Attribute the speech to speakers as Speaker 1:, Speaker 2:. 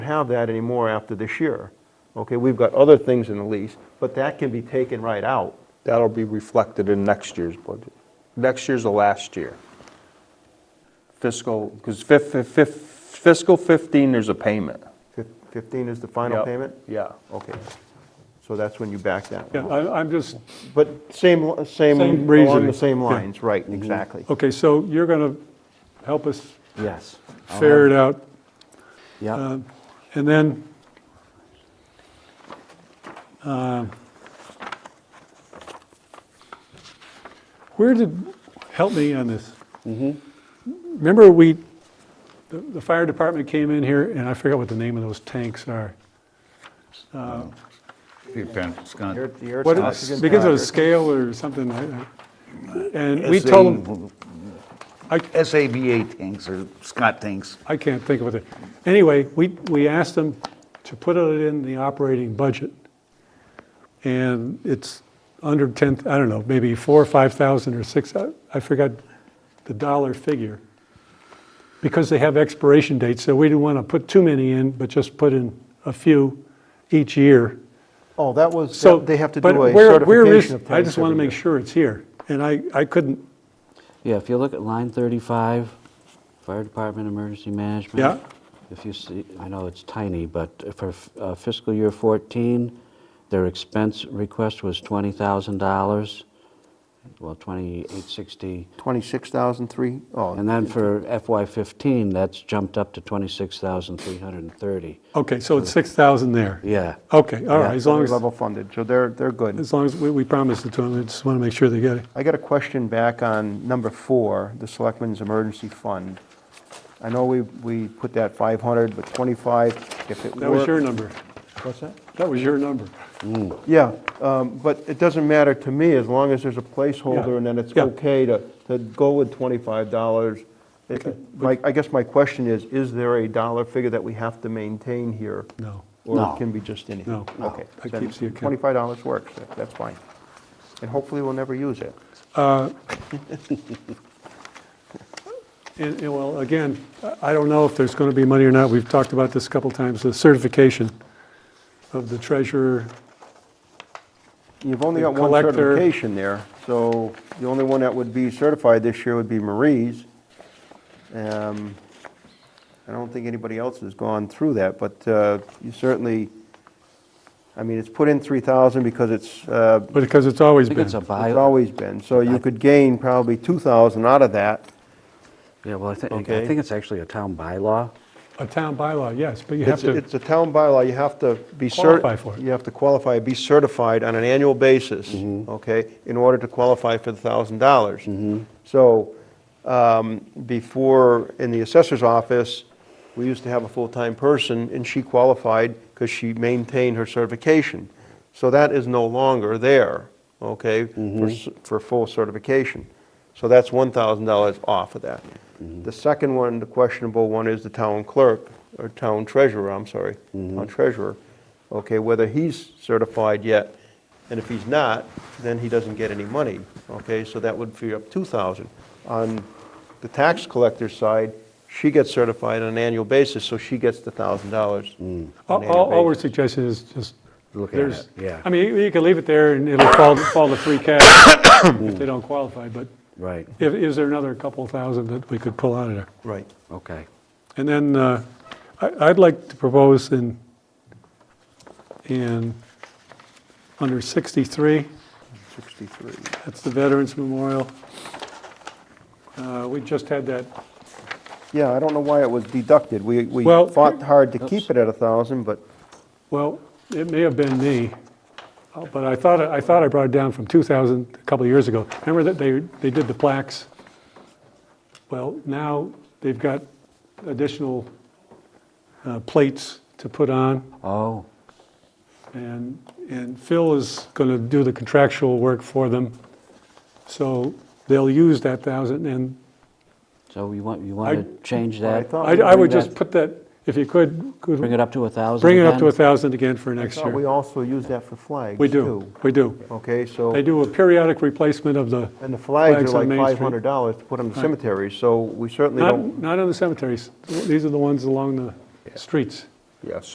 Speaker 1: have that anymore after this year. Okay, we've got other things in the lease, but that can be taken right out.
Speaker 2: That'll be reflected in next year's budget. Next year's the last year. Fiscal, because fiscal 15, there's a payment.
Speaker 1: Fif- 15 is the final
Speaker 2: Yep,
Speaker 1: payment?
Speaker 2: Yeah.
Speaker 1: Okay, so that's when you back that
Speaker 3: Yeah,
Speaker 1: one.
Speaker 3: I- I'm just,
Speaker 1: But same, same,
Speaker 3: Same
Speaker 1: along the
Speaker 3: reasoning.
Speaker 1: same lines, right, exactly.
Speaker 3: okay, so you're going to help us
Speaker 4: Yes.
Speaker 3: figure it out.
Speaker 4: Yeah,
Speaker 3: Um, And then, um, where did, help me on this. Remember we, the- the fire department came in here, and I forget what the name of those tanks are.
Speaker 5: Pete
Speaker 1: Air-
Speaker 5: Penscott.
Speaker 1: the air
Speaker 3: What,
Speaker 1: oxygen
Speaker 3: because of the
Speaker 1: tank.
Speaker 3: scale or something, I- I- and we told them, I-
Speaker 5: SABA tanks or Scott tanks.
Speaker 3: I can't think of what it. Anyway, we, we asked them to put it in the operating budget. And it's under 10, I don't know, maybe 4 or 5,000 or 6, I- I forgot the dollar figure. Because they have expiration dates, so we didn't want to put too many in, but just put in a few each year.
Speaker 1: Oh, that was,
Speaker 3: So.
Speaker 1: they have to
Speaker 3: but
Speaker 1: do a
Speaker 3: where- where is-
Speaker 1: certification of
Speaker 3: I just
Speaker 1: tanks
Speaker 3: want to
Speaker 1: every
Speaker 3: make
Speaker 1: year.
Speaker 3: sure it's here. And I, I couldn't,
Speaker 4: yeah, if you look at line 35, Fire Department Emergency Management.
Speaker 3: Yeah.
Speaker 4: If you see, I know it's tiny, but for uh, fiscal year 14, their expense request was $20,000, well, 2860.
Speaker 1: 26,003, oh,
Speaker 4: And then for FY 15, that's jumped up to 26,330.
Speaker 3: okay, so it's 6,000 there.
Speaker 4: Yeah.
Speaker 3: Okay, all right, as long
Speaker 1: they're
Speaker 3: as.
Speaker 1: level funded, so they're, they're good.
Speaker 3: As long as, we, we promised it to them, I just want to make sure they get it.
Speaker 1: I got a question back on number four, the Selectmen's Emergency Fund. I know we, we put that 500, but 25, if it worked...
Speaker 3: That was your number.
Speaker 1: What's that?
Speaker 3: That was your number.
Speaker 1: Yeah, um, but it doesn't matter to me, as long as there's a placeholder,
Speaker 3: Yeah,
Speaker 1: and then it's
Speaker 3: yeah.
Speaker 1: okay to, to go with $25. It- My, I guess my question is, is there a dollar figure that we have to maintain here?
Speaker 3: No.
Speaker 1: Or
Speaker 4: No.
Speaker 1: it can be just anything?
Speaker 3: No. No.
Speaker 1: Okay.
Speaker 3: That
Speaker 1: then
Speaker 3: keeps the account.
Speaker 1: $25 works, That- that's fine. And hopefully, we'll never use it.
Speaker 3: Uh, And, and well, again, I- I don't know if there's going to be money or not. We've talked about this a couple times, the certification of the treasurer.
Speaker 1: You've only
Speaker 3: The
Speaker 1: got one
Speaker 3: collector-
Speaker 1: certification there, so the only one that would be certified this year would be Marie's. Um, I don't think anybody else has gone through that, but uh, you certainly, I mean, it's put in 3,000 because it's, uh,
Speaker 3: But because it's always
Speaker 4: I think
Speaker 3: been.
Speaker 4: it's a
Speaker 1: it's
Speaker 4: bylaw.
Speaker 1: always been, so you could gain probably 2,000 out of that.
Speaker 4: Yeah, well, I think, I
Speaker 1: Okay.
Speaker 4: think it's actually a town bylaw.
Speaker 3: A town bylaw, yes, but you have
Speaker 1: It's
Speaker 3: to.
Speaker 1: it's a town bylaw, you have to be certified.
Speaker 3: Qualify for it.
Speaker 1: You have to qualify, be certified on an annual basis,
Speaker 3: Mm-hmm.
Speaker 1: okay, in order to qualify for the thousand dollars. So, um, before, in the assessor's office, we used to have a full-time person, and she qualified because she maintained her certification. So that is no longer there, okay,
Speaker 3: Mm-hmm.
Speaker 1: for s- for full certification. So that's $1,000 off of that.
Speaker 3: Mm-hmm.
Speaker 1: The second one, the questionable one, is the town clerk, or town treasurer, I'm sorry,
Speaker 3: Mm-hmm.
Speaker 1: town treasurer, okay, whether he's certified yet. And if he's not, then he doesn't get any money, okay? So that would free up 2,000. On the tax collector's side, she gets certified on an annual basis, so she gets the $1,000. on
Speaker 3: All,
Speaker 1: an
Speaker 3: all all
Speaker 1: annual
Speaker 3: we're
Speaker 1: basis.
Speaker 3: suggesting is just,
Speaker 4: Look at
Speaker 3: there's,
Speaker 4: it, yeah.
Speaker 3: I mean, you can leave it there and it'll fall, fall to free cash if they don't qualify, but
Speaker 4: Right,
Speaker 3: if, is there another couple thousand that we could pull out of there?
Speaker 1: Right.
Speaker 4: okay.
Speaker 3: And then uh, I- I'd like to propose in, in, under 63,
Speaker 1: 63.
Speaker 3: that's the Veterans Memorial. Uh, We just had that,
Speaker 1: Yeah, I don't know why it was deducted. We we
Speaker 3: Well-
Speaker 1: fought hard to keep it at 1,000, but
Speaker 3: well, it may have been me, uh, but I thought, I thought I brought it down from 2,000 a couple of years ago. Remember that they, they did the plaques? Well, now they've got additional uh, plates to put on.
Speaker 4: Oh,
Speaker 3: And, and Phil is going to do the contractual work for them, so they'll use that thousand, and
Speaker 4: so you want, you want to change that?
Speaker 1: thought-
Speaker 3: I, I would
Speaker 4: Bring
Speaker 3: just
Speaker 4: that-
Speaker 3: put that, if you could, could
Speaker 4: Bring it up to a 1,000
Speaker 3: bring it up to a
Speaker 4: again?
Speaker 3: thousand again for
Speaker 1: I
Speaker 3: next
Speaker 1: thought we
Speaker 3: year.
Speaker 1: also use that for flags,
Speaker 3: We do,
Speaker 1: too.
Speaker 3: we do.
Speaker 1: Okay, so...
Speaker 3: They do a periodic replacement of the,
Speaker 1: And the flags
Speaker 3: Flags
Speaker 1: are
Speaker 3: on
Speaker 1: like
Speaker 3: Main Street.
Speaker 1: $500 to put on the cemeteries, so we certainly
Speaker 3: not,
Speaker 1: don't...
Speaker 3: not on the cemeteries, these are the ones along the streets.
Speaker 2: Yes.